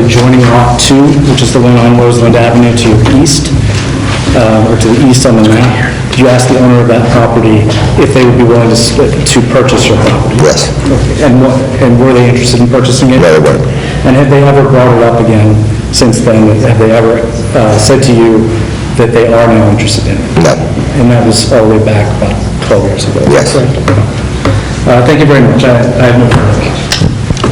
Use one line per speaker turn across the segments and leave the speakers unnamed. adjoining Lot 2, which is the one on Roseland Avenue to your east, uh, or to the east on the map. Did you ask the owner of that property if they would be willing to split, to purchase your property?
Yes.
And what, and were they interested in purchasing it?
No, they weren't.
And have they ever brought it up again since then? Have they ever uh, said to you that they are now interested in it?
No.
And that was all the way back about 12 years ago?
Yes.
correct? Uh, Thank you very much. I I have no further questions.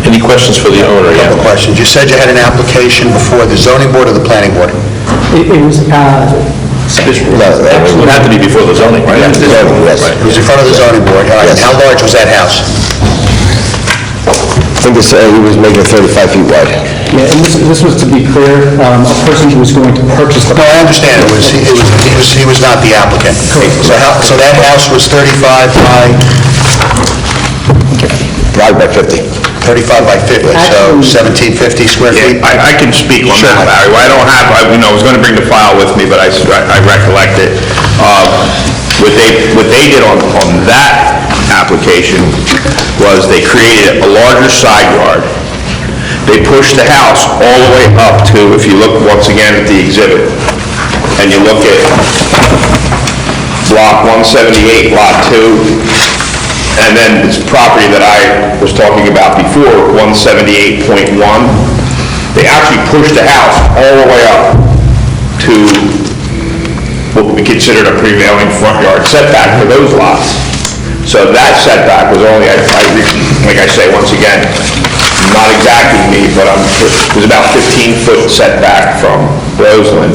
Any questions for the owner?
Couple
Yeah.
questions. You said you had an application before the zoning board or the planning board?
It it was, uh,
It would have to be before the zoning, right?
It was in front of the zoning board, all right. And how large was that house? I think
uh,
it's, he was making 35 feet wide.
yeah, and this this was to be clear, um, a person who was going to purchase the
No, I understand, it was, he was, he was, he was not the applicant. So how, so that house was 35 by? Wide by 50. 35 by 50, so
Actually-
1750 square feet?
Yeah, I, I can speak on
Sure.
that, Larry. I don't have, I, you know, I was gonna bring the file with me, but I, s- I recollect it. Uh, What they, what they did on, on that application was they created a larger side yard. They pushed the house all the way up to, if you look once again at the exhibit, and you look at block 178, lot 2, And then this property that I was talking about before, 178.1, they actually pushed the house all the way up to what would be considered a prevailing front yard setback for those lots. So that setback was only, I, I re- like I say, once again, not exactly me, but I'm, it was about 15-foot setback from Roseland,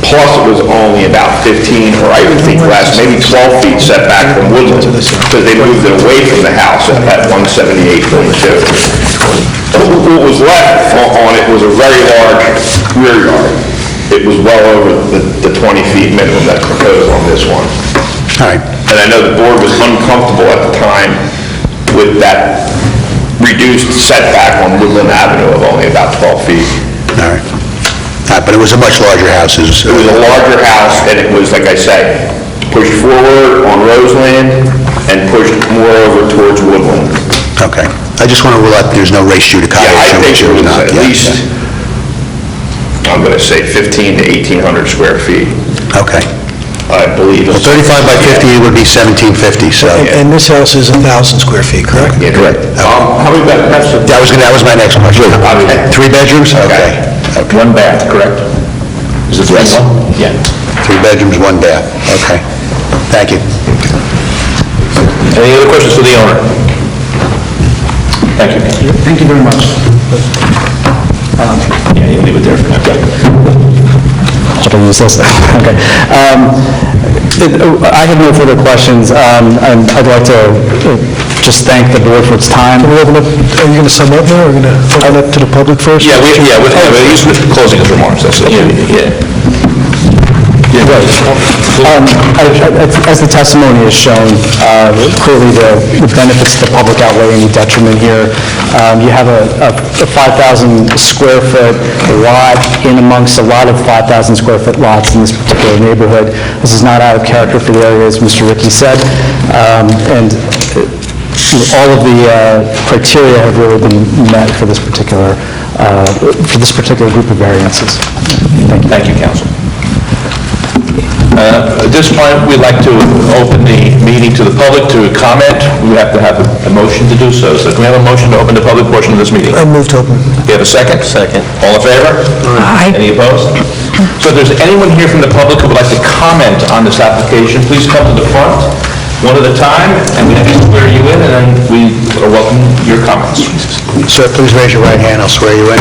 plus it was only about 15, or I would think less, maybe 12 feet setback from Woodland, because they moved it away from the house at that 178.2. What was left o- on it was a very large rear yard. It was well over the the 20 feet minimum that's proposed on this one.
All right.
And I know the board was uncomfortable at the time with that reduced setback on Woodland Avenue of only about 12 feet.
All right. All right, but it was a much larger house, is...
It was a larger house, and it was, like I say, pushed forward on Roseland and pushed more over towards Woodland.
Okay. I just want to rule out there's no race judicata
Yeah, I
issue,
think
which there is not.
it was at
Yeah,
least, I'm gonna say 15 to 1,800 square feet,
yeah. Okay.
I believe.
Well, 35 by 50 would be 1750, so...
And this house is 1,000 square feet, correct?
Yeah, correct. Um, How many bedrooms?
That was, gonna- that was my next question.
Okay.
Three bedrooms? Okay.
One bath, correct? Is it three?
Yes.
Yeah.
Three bedrooms, one bath. Okay. Thank you.
Any other questions for the owner? Thank you.
Thank you very much.
Yeah, you leave it there for now.
Okay. Um, it- I have no further questions. Um, and I'd like to uh, just thank the board for its time.
We'll open up- Are you going to sum up now, or are you going to open up to the public first?
Yeah, we, yeah, with, yeah, but he's closing his remarks, that's it. Yeah.
Um, I- I- as- As the testimony has shown, uh, clearly the the benefits to the public outweigh any detriment here. Um, You have a a- a 5,000 square foot lot in amongst a lot of 5,000 square foot lots in this particular neighborhood. This is not out of character for the area, as Mr. Ricky said. Um, And uh, all of the uh, criteria have really been met for this particular, uh, for this particular group of variances. Thank you.
Thank you, counsel. Uh, At this point, we'd like to open the meeting to the public to comment. We have to have a- a motion to do so. So can we have a motion to open the public portion of this meeting?
I move to open.
Do you have a second? Second. All in favor? Aye. Any opposed? So if there's anyone here from the public who would like to comment on this application, please come to the front, one at a time, and we can swear you in, and then we are welcome your comments.
Sir, please raise your right hand, I'll swear you in.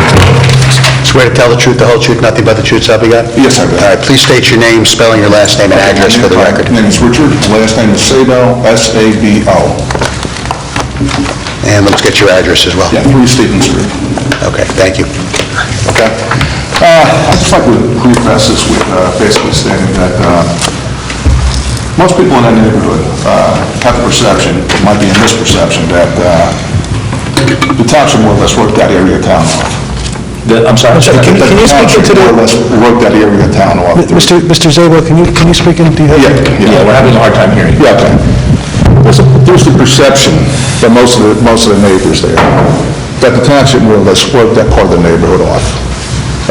Swear to tell the truth, the whole truth, nothing but the truth, so help you God?
Yes, I do.
All right, please state your name, spelling your last name and address for the record.
My name is Richard, last name is Sabo, S-A-B-O.
And let's get your address as well.
Yeah, 3 Stevens Street.
Okay, thank you.
Okay. Uh, I'd just like to preface this with uh, basically stating that uh, most people in that neighborhood uh, have the perception, might be a misperception, that uh, the township more or less worked that area of town off.
The- I'm sorry.
Can
That
can you speak
township
into
More or
the,
less worked that area of town off.
Mr. Mr. Zabel, can you, can you speak into the...
Yeah,
Yeah, we're having a hard time hearing you.
Yeah, okay. There's a- There's the perception by most of the, most of the neighbors there, that the township more or less worked that part of the neighborhood off.